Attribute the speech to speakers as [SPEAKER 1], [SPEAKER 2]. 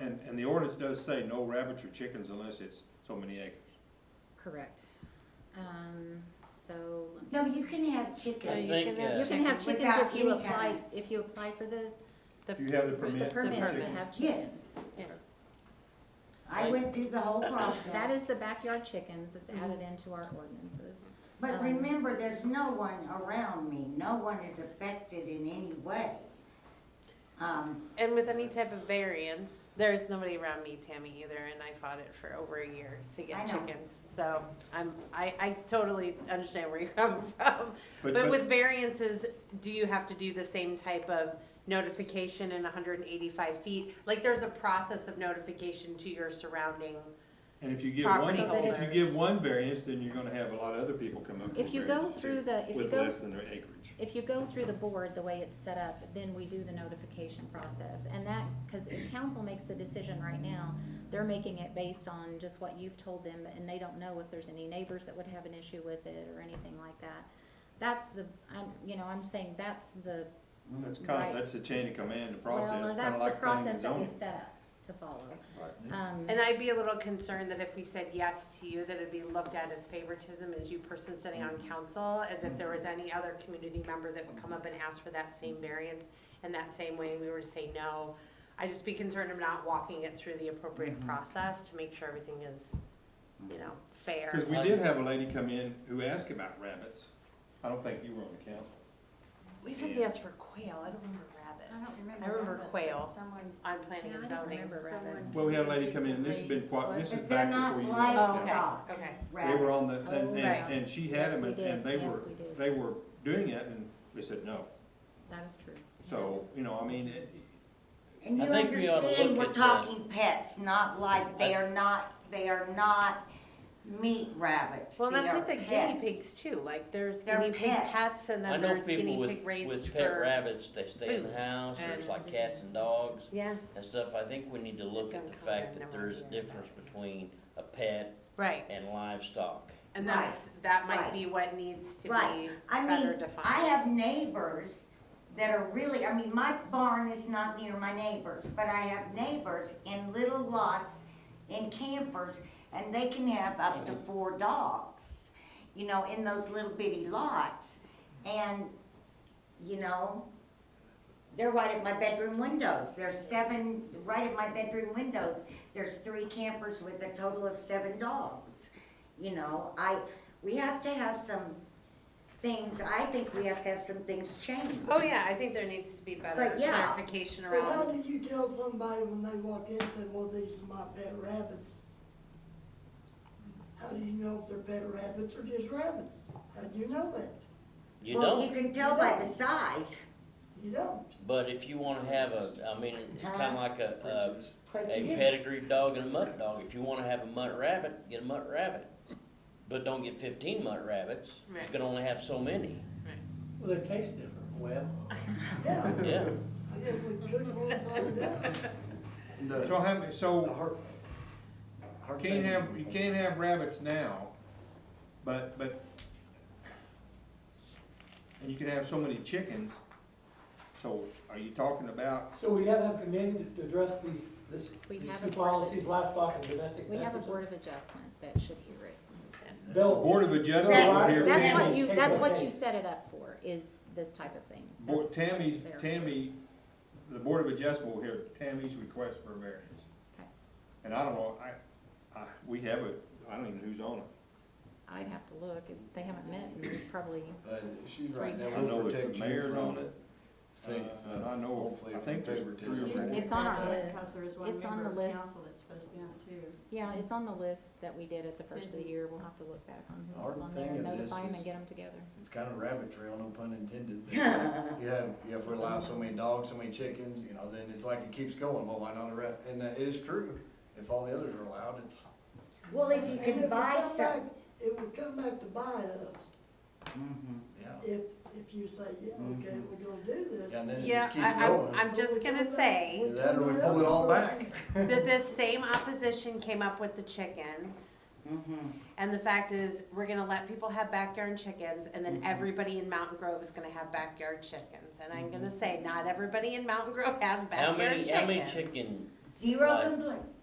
[SPEAKER 1] and, and the ordinance does say no rabbits or chickens unless it's so many acres.
[SPEAKER 2] Correct. Um, so,
[SPEAKER 3] No, you can have
[SPEAKER 4] I
[SPEAKER 3] chickens.
[SPEAKER 4] think,
[SPEAKER 2] you
[SPEAKER 4] uh,
[SPEAKER 2] can have
[SPEAKER 3] Chicken
[SPEAKER 2] chickens if
[SPEAKER 3] without
[SPEAKER 2] you
[SPEAKER 3] any
[SPEAKER 2] apply,
[SPEAKER 3] kind
[SPEAKER 2] if you apply for the, the.
[SPEAKER 1] Do you have the permit
[SPEAKER 2] The
[SPEAKER 1] for
[SPEAKER 2] permit to
[SPEAKER 1] chickens?
[SPEAKER 2] have chickens.
[SPEAKER 3] Yes.
[SPEAKER 2] Yeah.
[SPEAKER 3] I went through the whole process.
[SPEAKER 2] That is the backyard chickens that's
[SPEAKER 3] Mm-hmm.
[SPEAKER 2] added into our ordinances.
[SPEAKER 3] But
[SPEAKER 2] um,
[SPEAKER 3] remember, there's no one around me. No one is affected in any way. Um,
[SPEAKER 4] And with any type of variance, there's nobody around me, Tammy, either, and I fought it for over a year to
[SPEAKER 3] I
[SPEAKER 4] get
[SPEAKER 3] know.
[SPEAKER 4] chickens. So I'm, I, I totally understand where you're coming from.
[SPEAKER 1] But,
[SPEAKER 4] But
[SPEAKER 1] but,
[SPEAKER 4] with variances, do you have to do the same type of notification in hundred and eighty-five feet? Like, there's a process of notification to your surrounding,
[SPEAKER 1] and if you give one,
[SPEAKER 4] property
[SPEAKER 1] if you
[SPEAKER 4] owners.
[SPEAKER 1] give one variance, then you're gonna have a lot of other people come up with
[SPEAKER 2] If you go
[SPEAKER 1] variances
[SPEAKER 2] through
[SPEAKER 1] too,
[SPEAKER 2] the- if you
[SPEAKER 1] with
[SPEAKER 2] go-
[SPEAKER 1] less than their acreage.
[SPEAKER 2] If you go through the board, the way it's set up, then we do the notification process. And that, because if council makes the decision right now, they're making it based on just what you've told them, and they don't know if there's any neighbors that would have an issue with it or anything like that. That's the, I'm, you know, I'm saying that's the,
[SPEAKER 1] That's kind
[SPEAKER 2] Right.
[SPEAKER 1] of, that's the chain of command, the
[SPEAKER 2] well,
[SPEAKER 1] process,
[SPEAKER 2] or
[SPEAKER 1] kinda like
[SPEAKER 2] that's the
[SPEAKER 1] planning and
[SPEAKER 2] process that
[SPEAKER 1] zoning.
[SPEAKER 2] was set up to follow.
[SPEAKER 1] Right.
[SPEAKER 2] Um,
[SPEAKER 4] and I'd be a little concerned that if we said yes to you, that it'd be looked at as favoritism as you person sitting on council, as if there was any other community member that would come up and ask for that same variance in that same way, and we were to say no. I'd just be concerned of not walking it through the appropriate process to make sure everything is, you know, fair.
[SPEAKER 1] Cause we did have a lady come in who asked about rabbits. I don't think you were on the council.
[SPEAKER 4] We said yes for quail, I don't remember rabbits. I remember quail
[SPEAKER 5] Someone,
[SPEAKER 4] on planning
[SPEAKER 2] Yeah,
[SPEAKER 4] and
[SPEAKER 2] I don't
[SPEAKER 4] zoning.
[SPEAKER 2] remember rabbits.
[SPEAKER 1] Well, we had a lady come in, and this has been quite, this is
[SPEAKER 3] But they're
[SPEAKER 1] back
[SPEAKER 3] not
[SPEAKER 1] before you. went.
[SPEAKER 4] Oh, okay,
[SPEAKER 3] livestock
[SPEAKER 4] okay.
[SPEAKER 1] They were on the,
[SPEAKER 3] rabbits.
[SPEAKER 1] and,
[SPEAKER 2] Oh,
[SPEAKER 1] and,
[SPEAKER 2] right.
[SPEAKER 1] and she had
[SPEAKER 2] Yes,
[SPEAKER 1] them,
[SPEAKER 2] we
[SPEAKER 1] and and
[SPEAKER 2] did.
[SPEAKER 1] they
[SPEAKER 2] Yes,
[SPEAKER 1] were,
[SPEAKER 2] we did.
[SPEAKER 1] they were doing it, and we said no.
[SPEAKER 2] That is true.
[SPEAKER 1] So, you know, I mean, it-
[SPEAKER 3] And you
[SPEAKER 6] I think we ought to
[SPEAKER 3] understand,
[SPEAKER 6] look
[SPEAKER 3] we're
[SPEAKER 6] at the-
[SPEAKER 3] talking pets, not like, they are not, they are not meat rabbits.
[SPEAKER 4] Well,
[SPEAKER 3] They
[SPEAKER 4] that's
[SPEAKER 3] are
[SPEAKER 4] like the
[SPEAKER 3] pets.
[SPEAKER 4] guinea pigs too, like there's
[SPEAKER 3] They're
[SPEAKER 4] guinea pig
[SPEAKER 3] pets.
[SPEAKER 4] pets and
[SPEAKER 6] I
[SPEAKER 4] then
[SPEAKER 6] know
[SPEAKER 4] there's
[SPEAKER 6] people
[SPEAKER 4] guinea pig
[SPEAKER 6] with,
[SPEAKER 4] raised
[SPEAKER 6] with pet
[SPEAKER 4] for.
[SPEAKER 6] rabbits, they stay in the
[SPEAKER 4] food
[SPEAKER 6] house, or it's
[SPEAKER 4] and-
[SPEAKER 6] like cats and dogs
[SPEAKER 4] Yeah,
[SPEAKER 6] and stuff. I think we need to look
[SPEAKER 4] It's
[SPEAKER 6] at the
[SPEAKER 4] uncommon,
[SPEAKER 6] fact
[SPEAKER 4] never
[SPEAKER 6] that there is a
[SPEAKER 4] heard of
[SPEAKER 6] difference between a pet
[SPEAKER 4] right,
[SPEAKER 6] and livestock.
[SPEAKER 4] and
[SPEAKER 3] Right,
[SPEAKER 4] that's, that might
[SPEAKER 3] right.
[SPEAKER 4] be what needs to be
[SPEAKER 3] Right. I
[SPEAKER 4] better
[SPEAKER 3] mean,
[SPEAKER 4] defined.
[SPEAKER 3] I have neighbors that are really, I mean, my barn is not near my neighbors, but I have neighbors in little lots in campers, and they can have up to four dogs, you know, in those little bitty lots. And, you know, they're right at my bedroom windows. There's seven, right at my bedroom windows, there's three campers with a total of seven dogs. You know, I, we have to have some things, I think we have to have some things changed.
[SPEAKER 4] Oh, yeah, I think there needs to be better
[SPEAKER 3] But yeah.
[SPEAKER 4] clarification
[SPEAKER 7] So how
[SPEAKER 4] around,
[SPEAKER 7] do you tell somebody when they walk in and say, well, these are my pet rabbits? How do you know if they're pet rabbits or just rabbits? How do you know that?
[SPEAKER 6] You
[SPEAKER 3] Well,
[SPEAKER 6] don't,
[SPEAKER 3] you can tell by the size.
[SPEAKER 7] You don't.
[SPEAKER 6] but if you wanna have a, I mean, it's kinda like a,
[SPEAKER 1] prejudice.
[SPEAKER 6] a, a
[SPEAKER 3] Prejudice.
[SPEAKER 6] pedigree dog and a mutt dog. If you wanna have a mutt rabbit, get a mutt rabbit. But don't get fifteen mutt rabbits. You
[SPEAKER 4] Right.
[SPEAKER 6] can only have so many,
[SPEAKER 8] Well, they taste different, Webb.
[SPEAKER 7] Yeah,
[SPEAKER 6] yeah.
[SPEAKER 7] I guess we could one find out.
[SPEAKER 1] so
[SPEAKER 9] The,
[SPEAKER 1] how, many-
[SPEAKER 9] the
[SPEAKER 1] so
[SPEAKER 9] her. her
[SPEAKER 1] you can't
[SPEAKER 9] thing-
[SPEAKER 1] have, you can't have rabbits now, but, but, and you can have so many chickens. So are you talking about,
[SPEAKER 8] So we have a committee to- to address these, this,
[SPEAKER 2] We
[SPEAKER 8] these
[SPEAKER 2] have
[SPEAKER 8] two
[SPEAKER 2] a board of-
[SPEAKER 8] policies, livestock and domestic.
[SPEAKER 2] We
[SPEAKER 8] pet
[SPEAKER 2] have a
[SPEAKER 8] or
[SPEAKER 2] board of adjustment that should hear it.
[SPEAKER 8] something. They'll-
[SPEAKER 1] Board of Adjustment
[SPEAKER 8] They'll-
[SPEAKER 1] will hear
[SPEAKER 2] That's what
[SPEAKER 8] Tammy's
[SPEAKER 2] you,
[SPEAKER 8] case
[SPEAKER 2] that's
[SPEAKER 8] by
[SPEAKER 2] what you
[SPEAKER 8] case.
[SPEAKER 2] set it up for, is this type of thing.
[SPEAKER 1] Board-
[SPEAKER 2] That's what
[SPEAKER 1] Tammy's,
[SPEAKER 2] it's there for.
[SPEAKER 1] Tammy, the Board of Adjustment will hear Tammy's request for a variance.
[SPEAKER 2] Okay.
[SPEAKER 1] And I don't know, I, I, we have a, I don't even know who's on it.
[SPEAKER 2] I'd have to look, if they haven't met in probably,
[SPEAKER 9] But she's right,
[SPEAKER 1] I
[SPEAKER 9] that
[SPEAKER 1] know
[SPEAKER 9] will
[SPEAKER 1] that
[SPEAKER 9] protect
[SPEAKER 1] the
[SPEAKER 9] you
[SPEAKER 1] mayor's on
[SPEAKER 9] from
[SPEAKER 1] it,
[SPEAKER 9] things,
[SPEAKER 1] Uh, I
[SPEAKER 9] uh,
[SPEAKER 1] know-
[SPEAKER 9] hopefully
[SPEAKER 1] I
[SPEAKER 9] from
[SPEAKER 1] think there's three or
[SPEAKER 9] favoritism.
[SPEAKER 1] four.
[SPEAKER 2] It's on our list.
[SPEAKER 5] Because there is one
[SPEAKER 2] It's on
[SPEAKER 5] member
[SPEAKER 2] the
[SPEAKER 5] of
[SPEAKER 2] list.
[SPEAKER 5] council that's supposed to be on it too.
[SPEAKER 2] yeah, it's on the list that we did at the first of the year, we'll have to look back on who was
[SPEAKER 9] Hard
[SPEAKER 2] on there,
[SPEAKER 9] thing
[SPEAKER 2] and
[SPEAKER 9] of this
[SPEAKER 2] notify them
[SPEAKER 9] is-
[SPEAKER 2] and get them together.
[SPEAKER 9] It's kind of rabbit trail, no pun intended. You have, you have to allow so many dogs, so many chickens, you know, then it's like it keeps going, well, why not a rabbit? And that, it is true, if all the others are allowed, it's.
[SPEAKER 3] Well, if you
[SPEAKER 7] And it
[SPEAKER 3] can
[SPEAKER 7] would
[SPEAKER 3] buy
[SPEAKER 7] come
[SPEAKER 3] some.
[SPEAKER 7] back- It would come back to bite us
[SPEAKER 9] Yeah.
[SPEAKER 7] if, if you say, yeah, okay, we're gonna do this.
[SPEAKER 9] Mm-hmm. Yeah, and then it
[SPEAKER 4] yeah,
[SPEAKER 9] just keeps
[SPEAKER 4] I, I'm,
[SPEAKER 9] going.
[SPEAKER 4] I'm just gonna say
[SPEAKER 9] Either That or we pull it all back.
[SPEAKER 4] that this same opposition came up with the chickens. And the fact is, we're gonna let people have backyard chickens, and then everybody in Mountain Grove is gonna have backyard chickens. And I'm gonna say, not everybody in Mountain Grove has
[SPEAKER 6] How
[SPEAKER 4] backyard
[SPEAKER 6] many,
[SPEAKER 4] chickens.
[SPEAKER 6] how many chicken
[SPEAKER 3] Zero
[SPEAKER 6] Right.
[SPEAKER 3] complaints.